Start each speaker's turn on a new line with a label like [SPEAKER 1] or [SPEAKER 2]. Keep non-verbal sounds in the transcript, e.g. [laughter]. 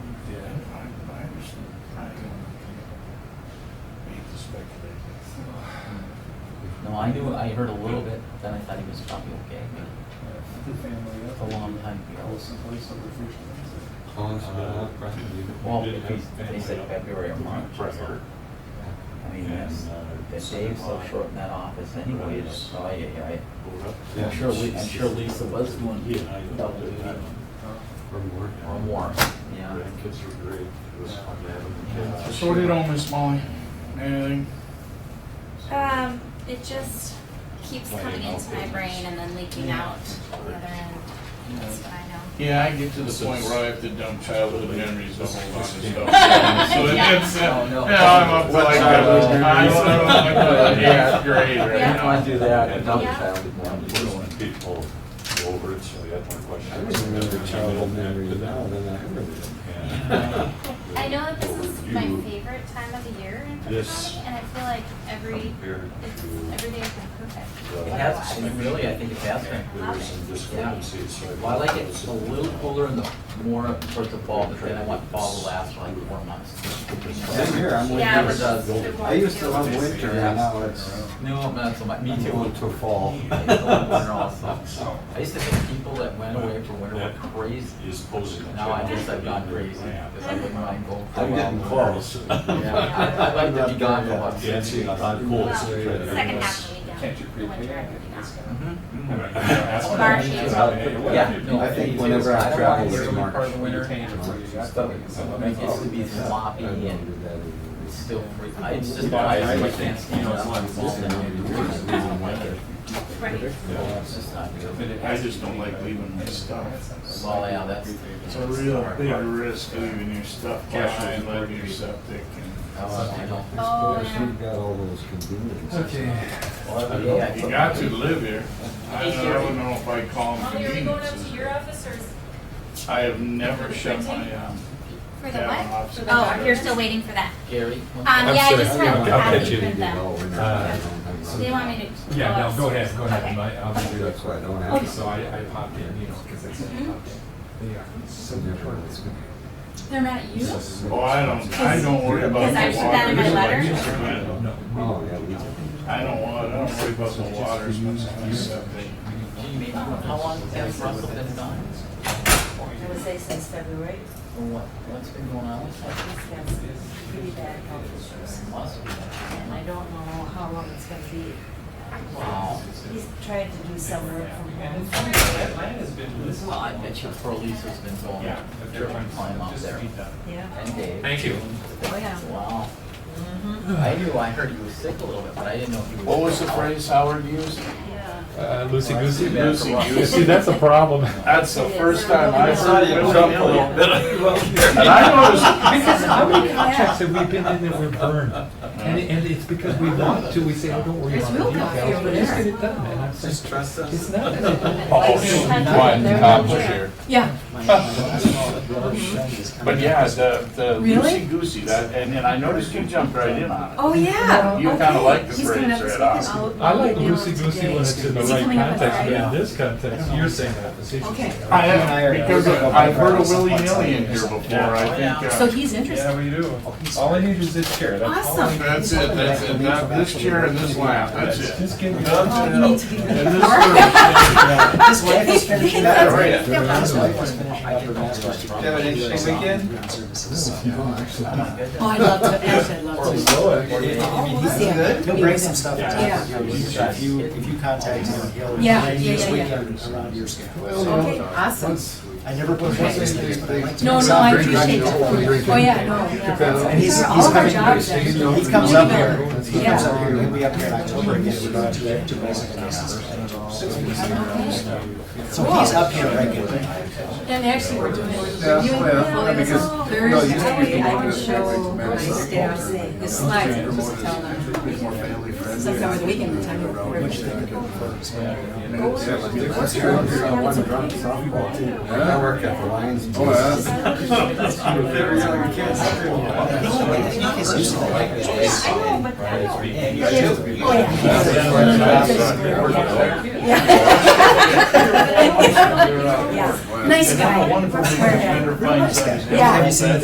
[SPEAKER 1] No, I knew, I heard a little bit, then I thought he was probably okay, but
[SPEAKER 2] The family
[SPEAKER 1] it's a long time ago.
[SPEAKER 2] else in place over Thursday.
[SPEAKER 3] Collins, uh, Preston, you.
[SPEAKER 1] Well,
[SPEAKER 3] did
[SPEAKER 1] if
[SPEAKER 3] have
[SPEAKER 1] he's, if they said
[SPEAKER 3] family up
[SPEAKER 1] February or March,
[SPEAKER 3] Right.
[SPEAKER 1] I mean, uh, that's, that Dave's so short in that office anyways, so I, I,
[SPEAKER 3] over up.
[SPEAKER 1] I- I'm sure, Li- I'm sure Lisa was doing
[SPEAKER 3] Yeah, I
[SPEAKER 1] double
[SPEAKER 3] did
[SPEAKER 1] duty
[SPEAKER 3] that Or more.
[SPEAKER 1] or more, yeah.
[SPEAKER 3] Kids were great. It was fun to have them.
[SPEAKER 2] Yeah.
[SPEAKER 3] kids.
[SPEAKER 4] So what did all Miss Molly? Anything?
[SPEAKER 5] Um, it just keeps
[SPEAKER 3] Why
[SPEAKER 5] coming
[SPEAKER 3] not?
[SPEAKER 5] into my brain and then leaking out the other end. That's what I know.
[SPEAKER 4] Yeah, I get to the point where I have to dump childhood memories of whole lot of stuff. So it-
[SPEAKER 5] Yeah.
[SPEAKER 4] it's, uh,
[SPEAKER 1] Oh,
[SPEAKER 4] yeah,
[SPEAKER 1] no.
[SPEAKER 4] I'm up to like,
[SPEAKER 1] childhood
[SPEAKER 4] uh, I
[SPEAKER 1] memories?
[SPEAKER 4] don't know, like the eighth grade right
[SPEAKER 5] Yeah.
[SPEAKER 4] now.
[SPEAKER 1] do that,
[SPEAKER 3] another
[SPEAKER 5] Yeah. child
[SPEAKER 3] Most people go over it, so that's my question.
[SPEAKER 6] I remember childhood memories now than I remember them.
[SPEAKER 3] Yeah.
[SPEAKER 5] [laughs] I know that this is my
[SPEAKER 3] You-
[SPEAKER 5] favorite time of the year in Cook
[SPEAKER 3] Yes.
[SPEAKER 5] County, and I feel like every,
[SPEAKER 3] Compared
[SPEAKER 5] it's,
[SPEAKER 3] to-
[SPEAKER 5] every day has been perfect.
[SPEAKER 3] Well,
[SPEAKER 1] It has, it really, I think it has been.
[SPEAKER 3] There were some discrepancies. so
[SPEAKER 1] Well, I like it a little cooler in the, more towards the fall, but then I want fall to last like four months.
[SPEAKER 6] Same here, I'm with
[SPEAKER 5] Yeah,
[SPEAKER 1] Never
[SPEAKER 5] it's
[SPEAKER 6] you.
[SPEAKER 1] does.
[SPEAKER 5] just- it
[SPEAKER 6] I used to love
[SPEAKER 5] won't feel-
[SPEAKER 6] winter, and now it's,
[SPEAKER 1] No, not so much, me
[SPEAKER 6] I'm
[SPEAKER 1] too.
[SPEAKER 6] going to fall.
[SPEAKER 1] I used to love winter also. I used to think people that went away for winter were crazy.
[SPEAKER 3] Is posing. a
[SPEAKER 1] Now I
[SPEAKER 3] challenge
[SPEAKER 1] guess I've gone
[SPEAKER 3] to the
[SPEAKER 1] crazy,
[SPEAKER 3] ramp.
[SPEAKER 1] because I wouldn't mind going for a
[SPEAKER 6] I'm
[SPEAKER 1] while.
[SPEAKER 6] getting close.
[SPEAKER 1] Yeah, I'd I'd like to be gone for once.
[SPEAKER 3] Yeah, see, I thought cool.
[SPEAKER 5] Well, second
[SPEAKER 6] Yes.
[SPEAKER 5] half of the weekend.
[SPEAKER 2] Can't you
[SPEAKER 5] the winter,
[SPEAKER 2] prepay?
[SPEAKER 5] everything else.
[SPEAKER 1] Mhm,
[SPEAKER 4] Mm.
[SPEAKER 1] mhm.
[SPEAKER 2] That's what
[SPEAKER 5] March,
[SPEAKER 2] I mean,
[SPEAKER 5] April.
[SPEAKER 2] how they pay away.
[SPEAKER 1] Yeah, no.
[SPEAKER 6] I think
[SPEAKER 1] me too.
[SPEAKER 6] whenever I
[SPEAKER 1] don't
[SPEAKER 6] travel,
[SPEAKER 1] wanna
[SPEAKER 6] it's
[SPEAKER 1] be
[SPEAKER 6] March.
[SPEAKER 1] Part of
[SPEAKER 2] You're
[SPEAKER 1] winter.
[SPEAKER 2] paying it for you.
[SPEAKER 1] It's still- it's something that gets to be sloppy and it's still free. I it's just
[SPEAKER 2] Yeah,
[SPEAKER 1] I
[SPEAKER 2] I
[SPEAKER 1] just
[SPEAKER 2] think,
[SPEAKER 1] can't
[SPEAKER 2] you
[SPEAKER 1] stand it.
[SPEAKER 2] know, it's like-
[SPEAKER 1] It's just- I don't like it.
[SPEAKER 5] Right.
[SPEAKER 1] It's just not
[SPEAKER 2] But
[SPEAKER 1] good.
[SPEAKER 2] it-
[SPEAKER 4] I just don't like leaving my stuff.
[SPEAKER 1] Well, yeah, that's.
[SPEAKER 4] It's a real big risk leaving your stuff behind, leaving your septic
[SPEAKER 1] Oh, I don't.
[SPEAKER 5] Oh, yeah.
[SPEAKER 6] You've got all those conveniences.
[SPEAKER 1] Well,
[SPEAKER 4] and.
[SPEAKER 1] yeah, I
[SPEAKER 4] You
[SPEAKER 1] put-
[SPEAKER 4] got to live here. I don't I don't know if I call them
[SPEAKER 7] Molly, are we going up to your
[SPEAKER 4] conveniences.
[SPEAKER 7] office or? is-
[SPEAKER 4] I have never shut my, um,
[SPEAKER 5] For the
[SPEAKER 4] Yeah,
[SPEAKER 5] what?
[SPEAKER 4] option.
[SPEAKER 5] Oh, you're still waiting for that.
[SPEAKER 1] Gary.
[SPEAKER 5] Um, yeah, I just
[SPEAKER 6] I'm
[SPEAKER 5] went
[SPEAKER 6] sorry,
[SPEAKER 5] to
[SPEAKER 6] I'll
[SPEAKER 5] have
[SPEAKER 6] catch
[SPEAKER 5] you print them.
[SPEAKER 6] them.
[SPEAKER 5] They want me to.
[SPEAKER 8] Yeah, no, go ahead, go ahead,
[SPEAKER 5] Okay.
[SPEAKER 8] My- I'll do that.
[SPEAKER 6] That's why I don't have.
[SPEAKER 8] So
[SPEAKER 9] Oh,
[SPEAKER 8] I, I popped in, you know, because it's,
[SPEAKER 9] Mm-hmm.
[SPEAKER 8] yeah.
[SPEAKER 5] They're mad at you?
[SPEAKER 4] oh, I don't, I don't worry about the water.
[SPEAKER 5] Because I put that in my
[SPEAKER 4] letter.
[SPEAKER 8] No,
[SPEAKER 6] Oh, yeah, we did.
[SPEAKER 4] I don't want, I don't worry about the water as much as my septic.
[SPEAKER 1] Gee, maybe- How long has Russell been gone?
[SPEAKER 9] I would say since February,
[SPEAKER 1] Or what, what's been going on with that?
[SPEAKER 9] he's got some pretty bad health issues.
[SPEAKER 1] Must be.
[SPEAKER 9] And I don't know how long it's gonna be.
[SPEAKER 1] Wow.
[SPEAKER 9] He's tried to do some work from home.
[SPEAKER 1] Well, I bet you poor Lisa's been going, tripping climb up there.
[SPEAKER 9] Yeah.
[SPEAKER 1] And Dave.
[SPEAKER 8] Thank you.
[SPEAKER 9] Oh, yeah.
[SPEAKER 1] Wow. Mm-hmm. I knew, I heard he was sick a little bit, but I didn't know if he was.
[SPEAKER 4] What was the phrase Howard used?
[SPEAKER 9] Yeah.
[SPEAKER 8] Uh, loosey goosey.
[SPEAKER 1] Lucy
[SPEAKER 8] See, that's a problem.
[SPEAKER 4] That's the first time I
[SPEAKER 9] I
[SPEAKER 4] saw
[SPEAKER 9] saw
[SPEAKER 4] you jump a little bit. And I
[SPEAKER 8] [laughs] Because how many
[SPEAKER 9] Yeah.
[SPEAKER 8] contracts have we been in that were burned? And, and it's because we want to, we say, oh, don't worry
[SPEAKER 9] There's
[SPEAKER 8] about the
[SPEAKER 9] milk out there
[SPEAKER 8] details,
[SPEAKER 9] over
[SPEAKER 8] but just
[SPEAKER 9] there.
[SPEAKER 8] get it done, and I'm saying,
[SPEAKER 6] Just trust us.
[SPEAKER 8] it's not. that it-
[SPEAKER 3] Oh,
[SPEAKER 9] shoot,
[SPEAKER 3] one,
[SPEAKER 9] uh, push
[SPEAKER 3] here.
[SPEAKER 9] Yeah. Oh,
[SPEAKER 4] noticed, but yeah, the, the
[SPEAKER 9] Really?
[SPEAKER 4] loosey goosey, that, and then I noticed you jumped right in on it.
[SPEAKER 9] Oh, yeah.
[SPEAKER 4] You kinda
[SPEAKER 9] Okay.
[SPEAKER 4] like the
[SPEAKER 9] He's gonna have
[SPEAKER 4] phrase
[SPEAKER 9] to
[SPEAKER 4] right
[SPEAKER 9] stick it
[SPEAKER 4] off.
[SPEAKER 9] out
[SPEAKER 8] I like
[SPEAKER 9] now
[SPEAKER 8] loosey goosey
[SPEAKER 9] today.
[SPEAKER 8] when it's in the
[SPEAKER 9] Is he
[SPEAKER 8] right
[SPEAKER 9] coming up on
[SPEAKER 8] context, but
[SPEAKER 9] Friday?
[SPEAKER 8] in this context, you're saying that facetiously.
[SPEAKER 4] I
[SPEAKER 6] I are-
[SPEAKER 4] have, because I've heard of willy nilly in here before, I
[SPEAKER 1] Yeah.
[SPEAKER 4] think. uh,
[SPEAKER 9] So he's interested.
[SPEAKER 3] we do. All I need is this chair,
[SPEAKER 9] Awesome.
[SPEAKER 4] That's it, that's it, That- this chair and this lap, that's it.
[SPEAKER 3] Just give me.
[SPEAKER 9] Oh, you need to be
[SPEAKER 4] And this is-
[SPEAKER 6] His wife is finishing up her. His wife was finishing up her master's.
[SPEAKER 1] Did
[SPEAKER 6] you have an interesting weekend?
[SPEAKER 1] Oh, my goodness.
[SPEAKER 9] [laughs] Oh, I love to, actually, I love to. Yeah.
[SPEAKER 6] He'll bring some stuff.
[SPEAKER 9] Yeah.
[SPEAKER 6] If you, if you contact him, he'll
[SPEAKER 9] Yeah,
[SPEAKER 6] arrange
[SPEAKER 9] yeah,
[SPEAKER 6] this
[SPEAKER 9] yeah, yeah.
[SPEAKER 6] weekend around your
[SPEAKER 4] Oh,
[SPEAKER 6] schedule.
[SPEAKER 9] Okay, awesome.
[SPEAKER 6] I never put one in there, but I like to.
[SPEAKER 9] No, no, I appreciate that. Oh, yeah, no, yeah.
[SPEAKER 6] And he's, he's
[SPEAKER 9] All of our
[SPEAKER 6] coming,
[SPEAKER 9] jobs are-
[SPEAKER 6] he comes up here, he comes up
[SPEAKER 9] Yeah.
[SPEAKER 6] here, he'll be up here in October again, we're going to, to Mexico. So he's up here regularly.
[SPEAKER 9] And actually, we're doing,
[SPEAKER 2] Yeah,
[SPEAKER 9] reviewing
[SPEAKER 2] well,
[SPEAKER 9] portfolios
[SPEAKER 2] because- no, you can't
[SPEAKER 9] Thursday,
[SPEAKER 2] do
[SPEAKER 9] I
[SPEAKER 2] it
[SPEAKER 9] can
[SPEAKER 2] this way,
[SPEAKER 9] show
[SPEAKER 2] it's
[SPEAKER 9] my
[SPEAKER 2] better.
[SPEAKER 9] staff the slides, I'm supposed to tell them.
[SPEAKER 2] It's more family friendly.
[SPEAKER 9] Since I was vegan, the time of
[SPEAKER 6] What's your, uh, one drum softball team?
[SPEAKER 9] Oh,
[SPEAKER 6] I work at the Lions. Oh,
[SPEAKER 9] I know, but I know. Yeah. Nice
[SPEAKER 4] And I'm a
[SPEAKER 9] guy.
[SPEAKER 4] wonderful
[SPEAKER 9] Swear to God.
[SPEAKER 4] defender, fine.
[SPEAKER 6] Have you seen the